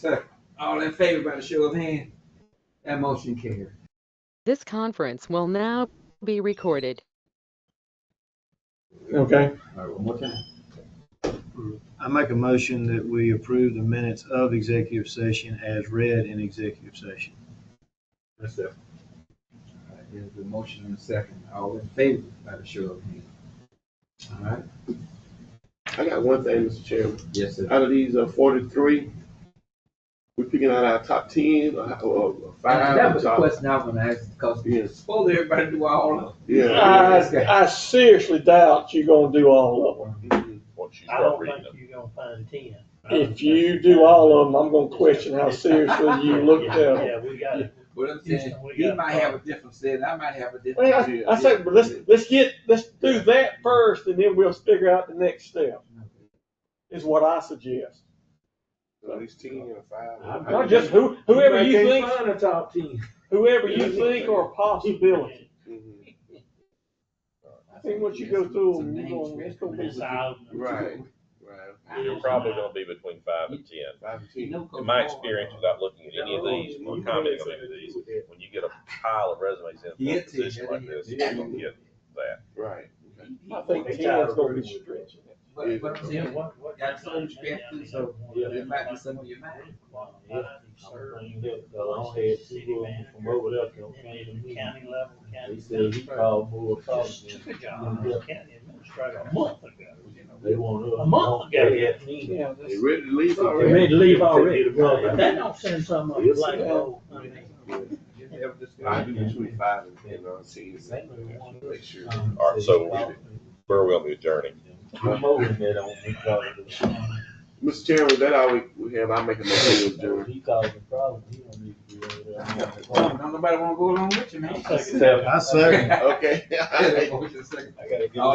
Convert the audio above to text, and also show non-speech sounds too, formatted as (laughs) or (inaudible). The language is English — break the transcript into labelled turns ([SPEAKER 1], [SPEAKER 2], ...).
[SPEAKER 1] All in favor by the show of hand? That motion carried.
[SPEAKER 2] This conference will now be recorded.
[SPEAKER 3] Okay,
[SPEAKER 4] All right, one more time.
[SPEAKER 5] I make a motion that we approve the minutes of executive session as read in executive session.
[SPEAKER 4] That's it.
[SPEAKER 1] All right, There's a motion and a second. All in favor by the show of hand? All right,
[SPEAKER 3] I got one thing, Mr. Chairman.
[SPEAKER 1] yes, sir.
[SPEAKER 3] Out of these uh, forty-three, we're picking out our top ten, or, or five.
[SPEAKER 1] That was the
[SPEAKER 3] or top-
[SPEAKER 1] question I want to ask because we
[SPEAKER 3] Yes.
[SPEAKER 1] supposed everybody do all of
[SPEAKER 3] Yeah.
[SPEAKER 1] Okay.
[SPEAKER 6] I, I seriously doubt you're gonna do all of
[SPEAKER 7] once you
[SPEAKER 8] I
[SPEAKER 7] start
[SPEAKER 8] don't
[SPEAKER 7] reading
[SPEAKER 8] think
[SPEAKER 7] it.
[SPEAKER 8] you're gonna find ten.
[SPEAKER 6] them. If you do all of them, I'm gonna question how seriously you looked at
[SPEAKER 8] Yeah,
[SPEAKER 6] them.
[SPEAKER 8] Yeah, we got it.
[SPEAKER 1] What I'm saying,
[SPEAKER 8] Houston, we
[SPEAKER 1] he
[SPEAKER 8] got-
[SPEAKER 1] might have a different set, I might have a different.
[SPEAKER 6] Well, I, I say, but let's, let's get, let's do that first and then we'll figure out the next step, is what I suggest.
[SPEAKER 3] At least ten or five.
[SPEAKER 6] Not just who, whoever you think,
[SPEAKER 8] Find a top ten.
[SPEAKER 6] whoever you think are a possibility.
[SPEAKER 3] Mhm.
[SPEAKER 6] I think once you go through them, you're gonna- it's gonna be-
[SPEAKER 8] It's out.
[SPEAKER 3] Right, right,
[SPEAKER 7] You're probably gonna be between five and ten.
[SPEAKER 3] five to ten.
[SPEAKER 7] In my experience, without looking at any of these or commenting on any of these, when you get a pile of resumes in for
[SPEAKER 1] Yeah,
[SPEAKER 7] a position like this, you're
[SPEAKER 1] yeah.
[SPEAKER 7] gonna get that.
[SPEAKER 3] Right.
[SPEAKER 6] I think ten's gonna be stretching it.
[SPEAKER 1] But, but I'm
[SPEAKER 8] Yeah,
[SPEAKER 1] saying,
[SPEAKER 8] what- what-
[SPEAKER 1] got some perspective, so there might be some of your mind.
[SPEAKER 8] The long head, city manager. From over there. County level, county. He said he called more problems. Just took a job as county administrator a month ago. They want. A month ago.
[SPEAKER 6] Yeah,
[SPEAKER 3] They
[SPEAKER 6] that's-
[SPEAKER 3] ready to leave
[SPEAKER 8] They
[SPEAKER 3] already?
[SPEAKER 8] ready to leave already. Well, That (laughs) don't send some of them like,
[SPEAKER 6] Yeah.
[SPEAKER 8] oh, I mean.
[SPEAKER 3] I do between five and ten, I'll see you. Make sure.
[SPEAKER 7] All right, so where will we adjourn?
[SPEAKER 3] Mr. Chairman, was that all we, we have, I make a motion to adjourn.
[SPEAKER 1] Don't nobody wanna go along with you, man.
[SPEAKER 8] Except
[SPEAKER 5] I second.
[SPEAKER 3] Okay. (laughs)
[SPEAKER 1] Motion second.